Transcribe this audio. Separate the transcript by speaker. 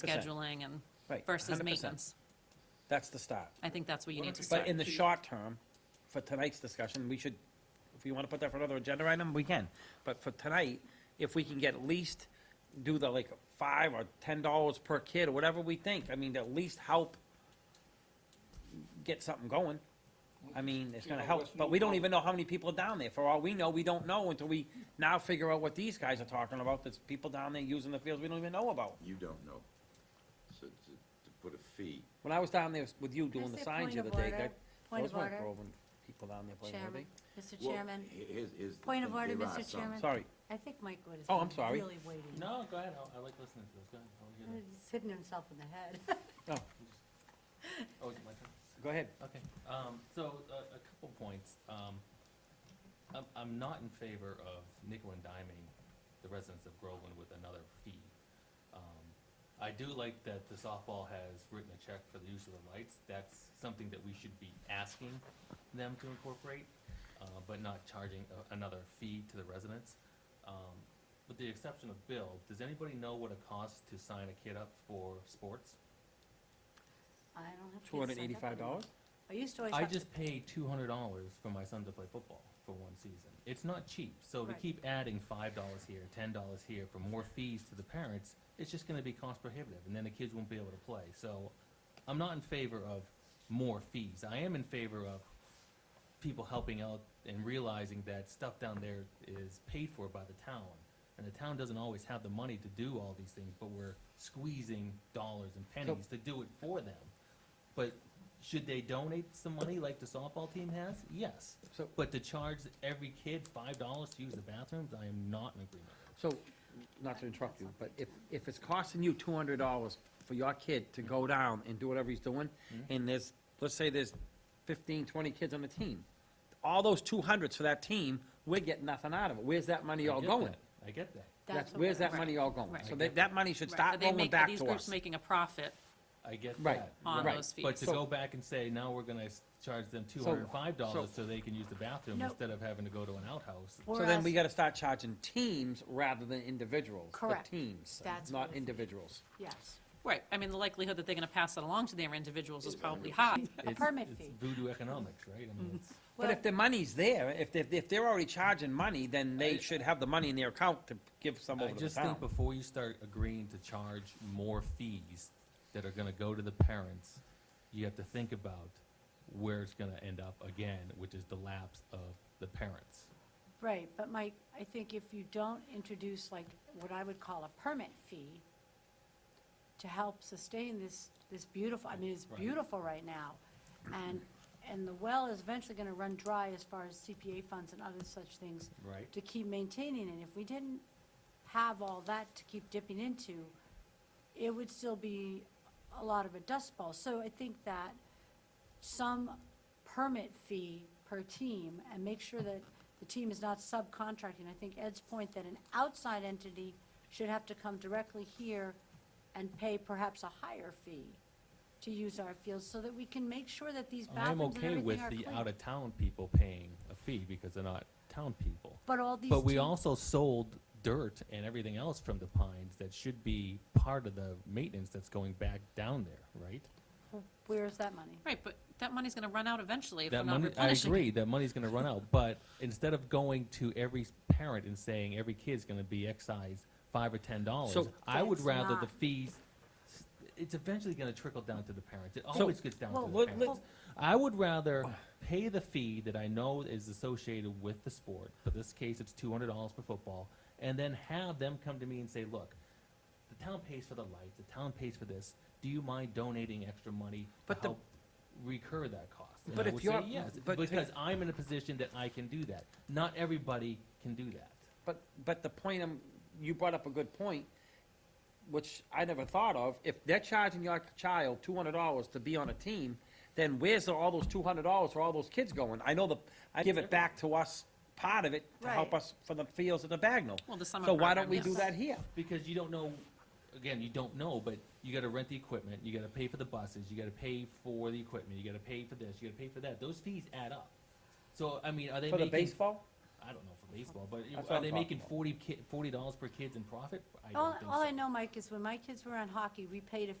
Speaker 1: 100%.
Speaker 2: scheduling and
Speaker 1: Right,
Speaker 2: versus
Speaker 1: 100%.
Speaker 2: maintenance.
Speaker 1: That's the start.
Speaker 2: I think that's what you need to
Speaker 1: But
Speaker 2: start.
Speaker 1: in the short term, for tonight's discussion, we should, if you want to put that for another agenda item, we can. But for tonight, if we can get at least do the like five or ten dollars per kid or whatever we think, I mean, to at least help get something going. I mean, it's gonna
Speaker 3: Yeah,
Speaker 1: help,
Speaker 3: let's
Speaker 1: but we
Speaker 3: move
Speaker 1: don't
Speaker 3: on.
Speaker 1: even know how many people are down there. For all we know, we don't know until we now figure out what these guys are talking about. There's people down there using the fields we don't even know about.
Speaker 4: You don't know. So to, to put a fee,
Speaker 1: When I was down there with you doing the
Speaker 5: say
Speaker 1: signs
Speaker 5: point
Speaker 1: the
Speaker 5: of
Speaker 1: other day,
Speaker 5: order?
Speaker 1: that,
Speaker 5: Point
Speaker 1: those
Speaker 5: of
Speaker 1: weren't
Speaker 5: order,
Speaker 1: Groveland people down there playing, were
Speaker 5: Chairman,
Speaker 1: they?
Speaker 5: Mr.
Speaker 4: well,
Speaker 5: Chairman,
Speaker 4: he- here's, here's the
Speaker 5: Point of
Speaker 4: thing,
Speaker 5: order,
Speaker 4: there
Speaker 5: Mr.
Speaker 4: are some-
Speaker 5: Chairman.
Speaker 1: Sorry,
Speaker 5: I think Mike would
Speaker 1: Oh, I'm
Speaker 5: have been
Speaker 1: sorry.
Speaker 5: really waiting.
Speaker 6: No, go ahead, I, I like listening to this, go ahead, I wanna hear this.
Speaker 5: He's hitting himself in the head.
Speaker 6: Oh, is it my turn?
Speaker 1: go ahead.
Speaker 6: Okay, um, so, a, a couple points, um, I'm, I'm not in favor of nickel and diming the residents of Groveland with another fee. Um, I do like that the softball has written a check for the use of the lights, that's something that we should be asking them to incorporate, uh, but not charging a, another fee to the residents. Um, with the exception of Bill, does anybody know what it costs to sign a kid up for sports?
Speaker 5: I don't have to.
Speaker 1: Two hundred and
Speaker 5: get signed up
Speaker 1: eighty-five
Speaker 5: anymore.
Speaker 1: dollars?
Speaker 5: I used to always
Speaker 6: I
Speaker 5: have to.
Speaker 6: just paid two hundred dollars for my son to play football for one season. It's not cheap, so to
Speaker 5: Right.
Speaker 6: keep adding five dollars here, ten dollars here for more fees to the parents, it's just gonna be cost prohibitive, and then the kids won't be able to play, so I'm not in favor of more fees. I am in favor of people helping out and realizing that stuff down there is paid for by the town. And the town doesn't always have the money to do all these things, but we're squeezing dollars and pennies to do it for them. But should they donate some money like the softball team has? Yes.
Speaker 1: So-
Speaker 6: But to charge every kid five dollars to use the bathrooms, I am not in agreement.
Speaker 1: So, not to interrupt you, but if, if it's costing you two hundred dollars for your kid to go down and do whatever he's doing, and there's, let's say there's fifteen, twenty kids on the team, all those two hundreds for that team, we're getting nothing out of it. Where's that money
Speaker 6: I
Speaker 1: all
Speaker 6: get
Speaker 1: going?
Speaker 6: that. I get that.
Speaker 1: That's,
Speaker 5: what
Speaker 1: where's
Speaker 5: we're-
Speaker 1: that money all going?
Speaker 2: Right.
Speaker 1: So that, that money should
Speaker 2: Right,
Speaker 1: start
Speaker 2: but they
Speaker 1: rolling
Speaker 2: make-
Speaker 1: back
Speaker 2: These
Speaker 1: to
Speaker 2: groups
Speaker 1: us.
Speaker 2: making a profit
Speaker 6: I get
Speaker 1: Right.
Speaker 6: that.
Speaker 2: on
Speaker 1: Right.
Speaker 2: those fees.
Speaker 6: But to
Speaker 1: So-
Speaker 6: go back and say, now we're gonna s- charge them two hundred and five dollars so they can use the bathroom
Speaker 5: No.
Speaker 6: instead of having to go to an outhouse.
Speaker 1: So
Speaker 5: we're
Speaker 1: then we
Speaker 5: ask-
Speaker 1: gotta start charging teams rather than individuals. but
Speaker 5: Correct.
Speaker 1: Teams,
Speaker 5: That's what
Speaker 1: not
Speaker 5: it's-
Speaker 1: individuals.
Speaker 5: Yes,
Speaker 2: Right, I mean, the likelihood that they're gonna pass it along to their individuals is probably high.
Speaker 6: It's-
Speaker 5: permit
Speaker 6: it's
Speaker 5: fee. Mm-hmm.
Speaker 6: Voodoo economics, right? I mean, it's,
Speaker 1: But
Speaker 5: Well-
Speaker 1: if the money's there, if, they- if they're already charging money, then they
Speaker 6: I-
Speaker 1: should have the money in their account to give some
Speaker 6: I
Speaker 1: over to the
Speaker 6: just think
Speaker 1: town.
Speaker 6: before you start agreeing to charge more fees that are gonna go to the parents, you have to think about where it's gonna end up again, which is the lapse of the parents.
Speaker 5: right, but Mike, I think if you don't introduce like what I would call a permit fee to help sustain this, this beautiful, I mean, it's
Speaker 6: Right.
Speaker 5: beautiful right now. And, and the well is eventually gonna run dry as far as CPA funds and other such things
Speaker 6: Right.
Speaker 5: to keep maintaining it. If we didn't have all that to keep dipping into, it would still be a lot of a dust ball. So I think that some permit fee per team and make sure that the team is not subcontracting. I think Ed's point that an outside entity should have to come directly here and pay perhaps a higher fee to use our fields so that we can make sure that these
Speaker 6: I'm
Speaker 5: bathrooms and
Speaker 6: okay
Speaker 5: everything
Speaker 6: with
Speaker 5: are
Speaker 6: the
Speaker 5: clean.
Speaker 6: out-of-town people paying a fee because they're not town people.
Speaker 5: But all these
Speaker 6: But we
Speaker 5: teams-
Speaker 6: also sold dirt and everything else from the pines that should be part of the maintenance that's going back down there, right?
Speaker 5: Where's that money?
Speaker 2: Right, but that money's gonna run out eventually if we're
Speaker 6: That
Speaker 2: not
Speaker 6: money, I
Speaker 2: replenishing.
Speaker 6: agree, that money's gonna run out, but instead of going to every parent and saying every kid's gonna be excised five or ten dollars,
Speaker 1: So-
Speaker 6: I would
Speaker 5: That's
Speaker 6: rather the
Speaker 5: not-
Speaker 6: fees, it's eventually gonna trickle down to the parents, it
Speaker 1: So-
Speaker 6: always gets down
Speaker 5: Well,
Speaker 6: to the
Speaker 1: let-
Speaker 6: parents. I would rather pay the fee that I know is associated with the sport, for this case, it's two hundred dollars for football, and then have them come to me and say, look, the town pays for the lights, the town pays for this, do you mind donating extra money to
Speaker 1: But the-
Speaker 6: help recur that cost? And
Speaker 1: But
Speaker 6: I
Speaker 1: if
Speaker 6: would
Speaker 1: you're-
Speaker 6: say yes,
Speaker 1: but-
Speaker 6: because I'm in a position that I can do that. Not everybody can do that.
Speaker 1: But, but the point, I'm- you brought up a good point, which I never thought of. If they're charging your child two hundred dollars to be on a team, then where's all those two hundred dollars for all those kids going? I know the, I give it back to us, part of it, to help
Speaker 5: Right.
Speaker 1: us for the fields at the Bagnell.
Speaker 2: Well, the summer
Speaker 1: So why don't
Speaker 2: program,
Speaker 1: we do
Speaker 2: yes.
Speaker 1: that here?
Speaker 6: Because you don't know, again, you don't know, but you gotta rent the equipment, you gotta pay for the buses, you gotta pay for the equipment, you gotta pay for this, you gotta pay for that. Those fees add up. So, I mean, are they
Speaker 1: For the
Speaker 6: making?
Speaker 1: baseball?
Speaker 6: I don't know for baseball, but
Speaker 1: That's what
Speaker 6: are
Speaker 1: I'm
Speaker 6: they
Speaker 1: talking
Speaker 6: making
Speaker 1: about.
Speaker 6: forty ki, forty dollars per kid in profit? I
Speaker 5: All,
Speaker 6: don't think
Speaker 5: all
Speaker 6: so.
Speaker 5: I know, Mike, is when my kids were on hockey, we paid a